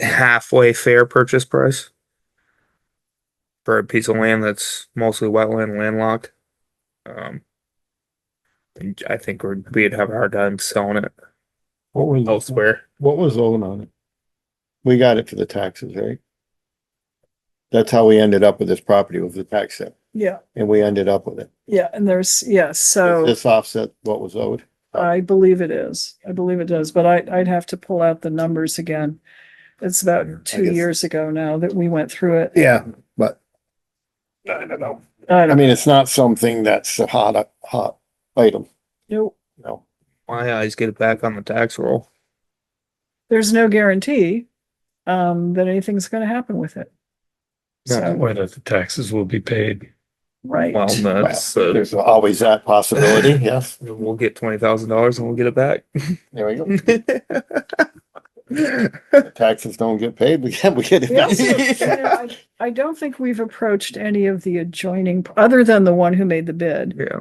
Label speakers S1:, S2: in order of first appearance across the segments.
S1: halfway fair purchase price for a piece of land that's mostly wetland landlocked. Um, and I think we'd, we'd have a hard time selling it
S2: What was,
S1: elsewhere.
S2: what was owed on it? We got it for the taxes, right? That's how we ended up with this property with the tax set,
S3: Yeah,
S2: and we ended up with it.
S3: yeah, and there's, yes,
S2: Does
S3: so
S2: This uh, offset what was owed.
S3: I believe it is. I believe it does, but I, I'd have to pull out the numbers again. It's about two
S2: guess-
S3: years ago now that we went through it.
S2: Yeah, but. I don't know.
S3: I
S2: I
S3: don't
S2: mean, it's not something that's a hot, hot item,
S3: know.
S2: no.
S1: My eyes get it back on the tax roll.
S3: There's no guarantee, um, that anything's gonna happen with it. So,
S4: Or that the taxes will be paid.
S3: right.
S1: Well, that's, uh,
S2: There's always that possibility, yes.
S1: we'll get twenty thousand dollars and we'll get it back.
S2: There we go. Taxes don't get paid, we get, we get it.
S3: We also- you know, I I don't think we've approached any of the adjoining, other than the one who made the bid,
S1: Yeah,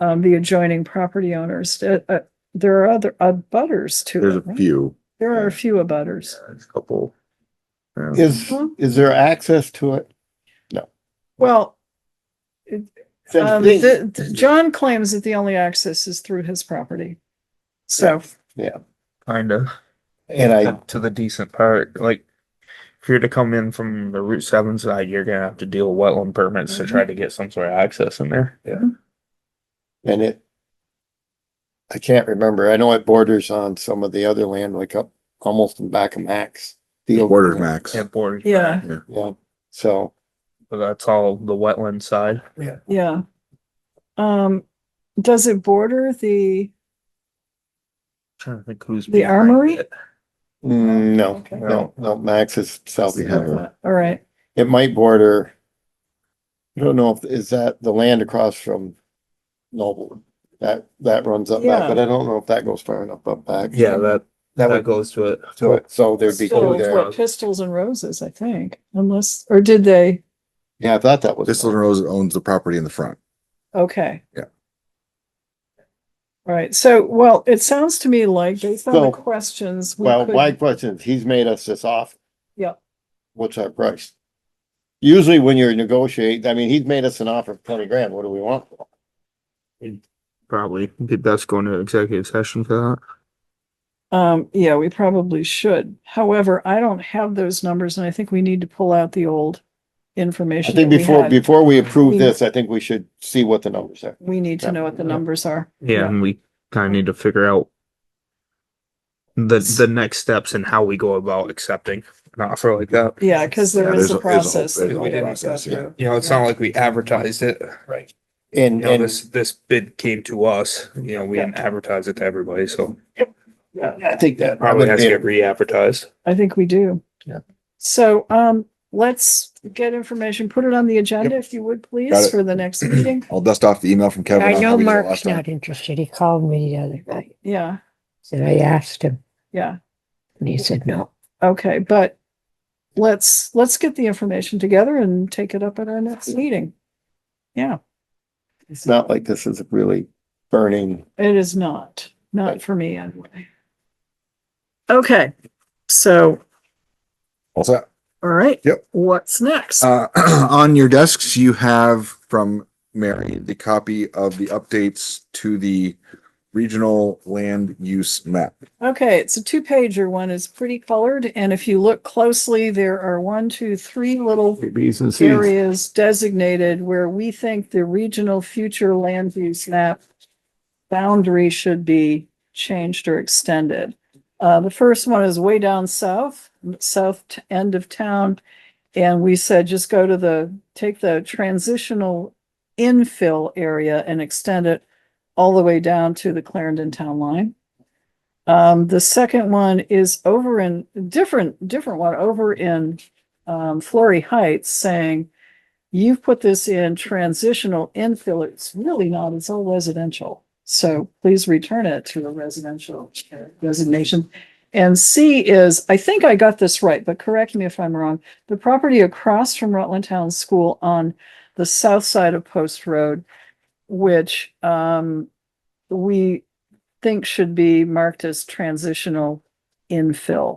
S3: um, the adjoining property owners. Uh, uh, there are other, uh, butters to
S5: There's
S3: it.
S5: a
S3: right?
S5: few.
S3: There are a few abutters.
S1: there's a couple. Yeah.
S2: Is, is there access to it?
S3: Well, um,
S2: Since these-
S3: the, the- John claims that the only access is through his property. So,
S1: Kinda.
S2: And
S1: to-
S2: I,
S1: to the decent part, like if you're to come in from the Route Seven side, you're gonna have to deal with wetland permits to
S3: Mm-hmm.
S1: try to get some sort of access in there. Yeah.
S2: and it. I can't remember. I know it borders on some of the other land, like up almost in back of Max. The old-
S5: Quarter max.
S1: And borders,
S3: yeah,
S2: Yeah, so
S1: but that's all the wetland side.
S3: yeah. Um, does it border the,
S1: Trying to think who's.
S3: The
S1: behind
S3: armory?
S1: it.
S2: mm, no,
S3: Okay.
S2: no, no, Max is south.
S5: We
S2: of
S5: have
S2: that.
S5: a-
S3: all right,
S2: It might border. I don't know if, is that the land across from Noble? That, that runs up back,
S3: Yeah.
S2: but I don't know if that goes far enough up back.
S1: Yeah, that,
S2: That
S1: that
S2: would go
S1: goes to it.
S2: to it. So there'd be
S3: still
S2: two
S1: Over
S3: it's
S2: there.
S3: what, pistols and roses, I think, unless, or did they?
S2: Yeah, I thought that was.
S5: This little rose owns the property in the front.
S3: Okay.
S5: Yeah.
S3: All right, so, well, it sounds to me like based on the
S2: So-
S3: questions. we
S2: Well,
S3: could-
S2: my question, is, he's made us this offer.
S3: Yep.
S2: What's our price? Usually when you're negotiating, I mean, he's made us an offer of twenty grand, what do we want?
S1: Probably be best going to executive session for
S3: Um, yeah, we probably should. However, I don't have those numbers and I think we need to pull out the old
S2: I
S3: information.
S2: think
S3: that we
S2: before,
S3: had.
S2: before we approve this, I think we should see what the numbers are.
S3: We need to know what the numbers are.
S1: that. Yeah, and we kinda need to figure out the, the next steps and how we go about accepting an offer like that.
S3: Yeah, because
S5: Yeah,
S3: there is
S5: there's
S3: a
S5: a- there's a whole-
S3: process that
S5: there's a
S3: we
S5: whole
S3: didn't go
S5: process, yeah.
S3: through.
S1: You know, it's not like we advertised it.
S2: Right. And,
S1: You know,
S2: and
S1: this, this bid came to us, you know, we didn't advertise it to everybody, so
S2: I think that.
S1: probably has to get
S2: would be-
S1: re-advertised.
S3: I think we do.
S2: Yeah.
S3: So, um, let's get information, put it on the agenda if you would
S5: Got
S3: please
S5: it.
S3: for the next meeting.
S5: I'll dust off the email from Kevin. on
S6: I
S5: how
S6: know
S5: we did it
S6: Mark's
S5: last time.
S6: not interested. He called me the other night
S3: Yeah,
S6: and I asked him
S3: yeah,
S6: and he said no.
S3: okay, but let's, let's get the information together and take it up at our next meeting. Yeah,
S2: It's not like this is really burning.
S3: it is not, not for me anyway. Okay, so,
S5: All set.
S3: all right.
S5: Yep.
S3: What's next?
S5: Uh, on your desks, you have from Mary, the copy of the updates to the regional land use map.
S3: Okay, it's a two pager. One is pretty colored, and if you look closely, there are one, two, three little areas designated where we think the regional future land use map boundary should be changed or extended. Uh, the first one is way down south, south t- end of town. And we said, just go to the, take the transitional infill area and extend it all the way down to the Clarendon Town Line. Um, the second one is over in, different, different one, over in, um, Flory Heights saying, you've put this in transitional infill. It's really not, it's all residential. So please return it to a residential uh, designation. And C is, I think I got this right, but correct me if I'm wrong. The property across from Rutland Town School on the south side of Post Road, which, um, we think should be marked as transitional infill